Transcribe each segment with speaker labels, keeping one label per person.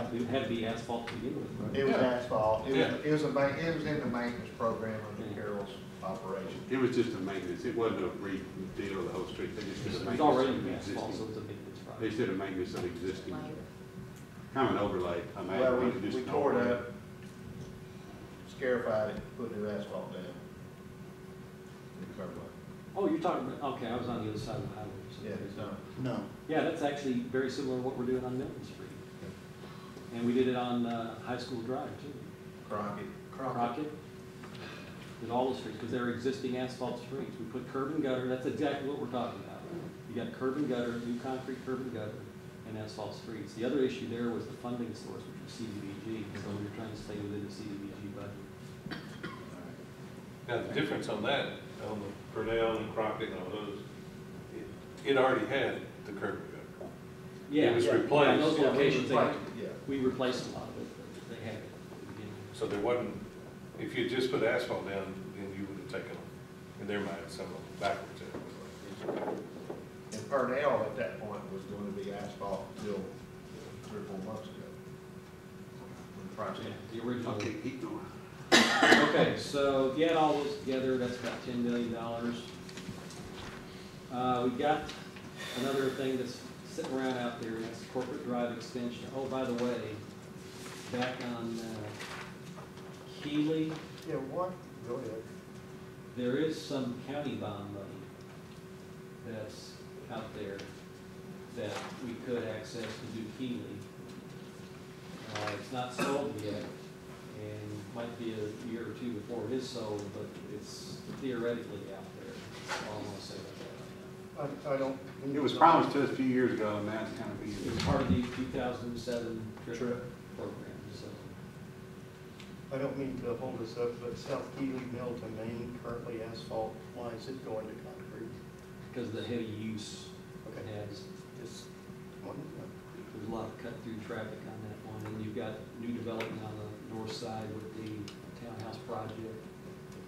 Speaker 1: it would have to be asphalt to begin with,
Speaker 2: It
Speaker 1: right?
Speaker 2: was asphalt, it
Speaker 3: Yeah.
Speaker 2: was, it was a ma, it was in the maintenance program of
Speaker 1: Yeah.
Speaker 2: Carroll's operation.
Speaker 3: It was just a maintenance, it wasn't a redeal of the whole street, they just did a
Speaker 1: It's
Speaker 3: maintenance.
Speaker 1: it's already
Speaker 3: of
Speaker 1: asphalt, so
Speaker 3: existing-
Speaker 1: it's a maintenance
Speaker 3: They
Speaker 1: project.
Speaker 3: just did a maintenance of existing, kind of an overlay, I mean.
Speaker 2: Well, we,
Speaker 3: it was just
Speaker 2: we
Speaker 3: an
Speaker 2: tore it
Speaker 3: overlay.
Speaker 2: up, scarified it, put new asphalt down.
Speaker 1: Oh, you're talking about, okay, I was on the other side of the highway. so-
Speaker 2: Yeah, it's not.
Speaker 4: No.
Speaker 1: Yeah, that's actually very similar to what we're doing on Milton Street. And we did it on, uh, High School Drive too.
Speaker 2: Crockett.
Speaker 1: Crockett, did all the streets, because they're existing asphalt streets. We put curb and gutter, that's exactly what we're talking about. You got curb and gutter, new concrete curb and gutter, and asphalt streets. The other issue there was the funding source, which was CDBG, so we were trying to stay within the CDBG budget.
Speaker 5: Now, the difference on that, on the Purnell and Crockett and all those, it- it already had the curb cut.
Speaker 1: Yeah,
Speaker 5: was
Speaker 1: yeah,
Speaker 5: replaced.
Speaker 1: on those
Speaker 2: Yeah, we
Speaker 1: locations, they,
Speaker 2: replaced it,
Speaker 1: we replaced a lot of it, but they had it. at the beginning.
Speaker 5: So there wasn't, if you just put asphalt down, then you would have taken, in their mind, some of them backwards.
Speaker 2: Yeah, and Purnell at that point was gonna be asphalt until three or four months ago. When
Speaker 1: Yeah,
Speaker 2: Crockett-
Speaker 1: The original.
Speaker 3: Okay, keep going.
Speaker 1: Okay, so if you add all those together, that's about ten million dollars. Uh, we got another thing that's sitting around out there, and that's corporate drive extension. Oh, by the way, back on, uh, Keeley,
Speaker 2: Yeah, what, go ahead.
Speaker 1: there is some county bond money that's out there that we could access to do Keeley. Uh, it's not sold yet, and might be a year or two before it is sold, but it's theoretically out there, That's all I'm gonna say about
Speaker 2: I, I don't.
Speaker 3: It was promised to us a few years ago, and now it's kind of
Speaker 1: that. It was
Speaker 3: being,
Speaker 1: part of the two thousand and seven trip
Speaker 6: Trip.
Speaker 1: program, so.
Speaker 6: I don't mean to hold this up, but South Keely Mill to Main currently asphalt, why is it going to concrete?
Speaker 1: Because of the heavy use it
Speaker 6: Okay,
Speaker 1: has,
Speaker 6: just wondering.
Speaker 1: There's a lot of cut-through traffic on that one, and you've got new development on the north side with the townhouse project.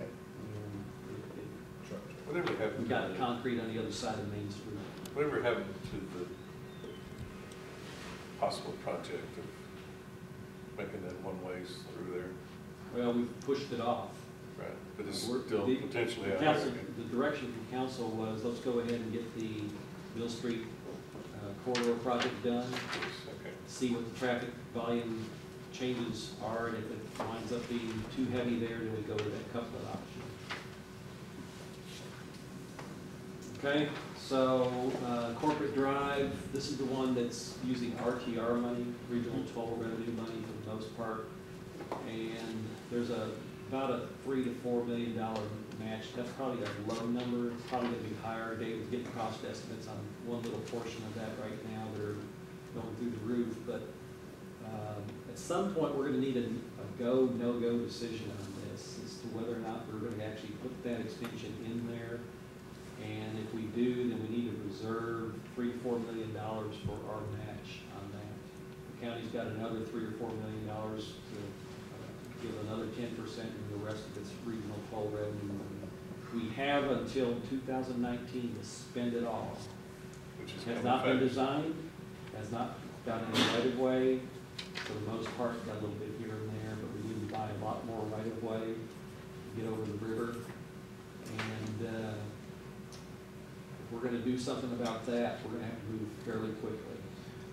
Speaker 6: Okay.
Speaker 1: And it- it-
Speaker 5: Whatever
Speaker 1: We've
Speaker 5: happened,
Speaker 1: got
Speaker 5: to
Speaker 1: concrete on the other side of Main Street.
Speaker 5: the- whatever happened to the possible project of making that one ways through there,
Speaker 1: Well, we've pushed it off.
Speaker 5: right? But it's
Speaker 1: We're-
Speaker 5: still
Speaker 1: the-
Speaker 5: potentially
Speaker 1: The
Speaker 5: out
Speaker 1: council,
Speaker 5: there.
Speaker 1: the direction from council was, let's go ahead and get the Mill Street uh, corridor project done,
Speaker 5: Okay.
Speaker 1: see what the traffic volume changes are, and if it winds up being too heavy there, then we go with that couplet option. Okay, so uh, corporate drive, this is the one that's using RTR money, regional toll revenue money for the most part. And there's a, about a three to four million dollar match, that's probably a low number, it's probably gonna be higher. David's getting cost estimates on one little portion of that right now, they're going through the roof, but um, at some point, we're gonna need a, a go, no-go decision on this, as to whether or not we're gonna actually put that extension in there. And if we do, then we need to reserve three, four million dollars for our match on that. The county's got another three or four million dollars to uh, give another ten percent, and the rest of it's regional toll revenue. We have until two thousand nineteen to spend it all.
Speaker 5: Which is
Speaker 1: Has
Speaker 5: coming
Speaker 1: not been
Speaker 5: back.
Speaker 1: designed, has not got any right of way, for the most part, got a little bit here and there, but we need to buy a lot more right of way, to get over the river. And, uh, if we're gonna do something about that, we're gonna have to move fairly quickly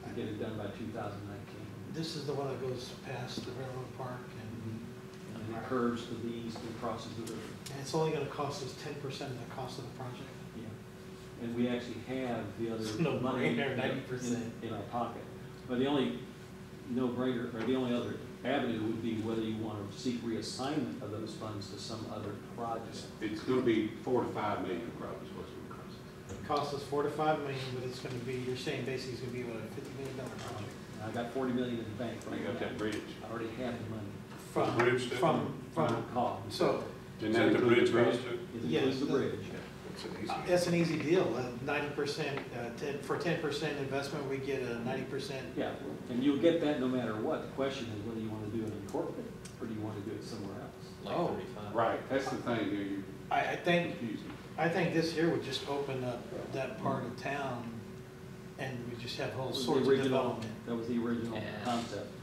Speaker 1: to get it done by two thousand nineteen.
Speaker 7: This is the one that goes past the railroad park, and,
Speaker 1: And it curves to the east and crosses the river.
Speaker 7: and it's only gonna cost us ten percent of the cost of the project.
Speaker 1: Yeah, and we actually have the
Speaker 7: It's
Speaker 1: other
Speaker 7: no
Speaker 1: money.
Speaker 7: brainer,
Speaker 1: in-
Speaker 7: 90%.
Speaker 1: In our pocket. But the only no-brainer, or the only other avenue would be whether you want to seek reassignment of those funds to some other project.
Speaker 3: it's going to be four to five million probably is what's going to cost.
Speaker 7: It costs us four to five million, but it's gonna be, you're saying basically it's gonna be what, a fifty million dollar project?
Speaker 1: And Um, I got forty million in the bank
Speaker 3: We
Speaker 1: right
Speaker 3: got that
Speaker 1: now.
Speaker 3: bridge.
Speaker 1: I already have the money.
Speaker 7: From,
Speaker 5: bridge that-
Speaker 7: from, from,
Speaker 1: Call.
Speaker 7: so,
Speaker 3: Didn't
Speaker 5: Is
Speaker 3: that
Speaker 5: that the
Speaker 3: include
Speaker 5: bridge across to?
Speaker 1: It
Speaker 7: Yes,
Speaker 1: includes the
Speaker 7: the-
Speaker 1: bridge.
Speaker 5: It's an easy.
Speaker 7: uh, that's an easy deal, ninety percent, uh, ten, for ten percent investment, we get a ninety percent.
Speaker 1: Yeah, and you'll get that no matter what. The question is whether you want to do it in corporate or do you want to do it somewhere else?
Speaker 7: Oh.
Speaker 3: Right, that's the thing, you're you're
Speaker 7: I, I think,
Speaker 3: confusing.
Speaker 7: I think this here would just open up that part of town, and we just have whole
Speaker 1: That was the
Speaker 7: sorts of
Speaker 1: original-
Speaker 7: development.
Speaker 1: That was the original concept.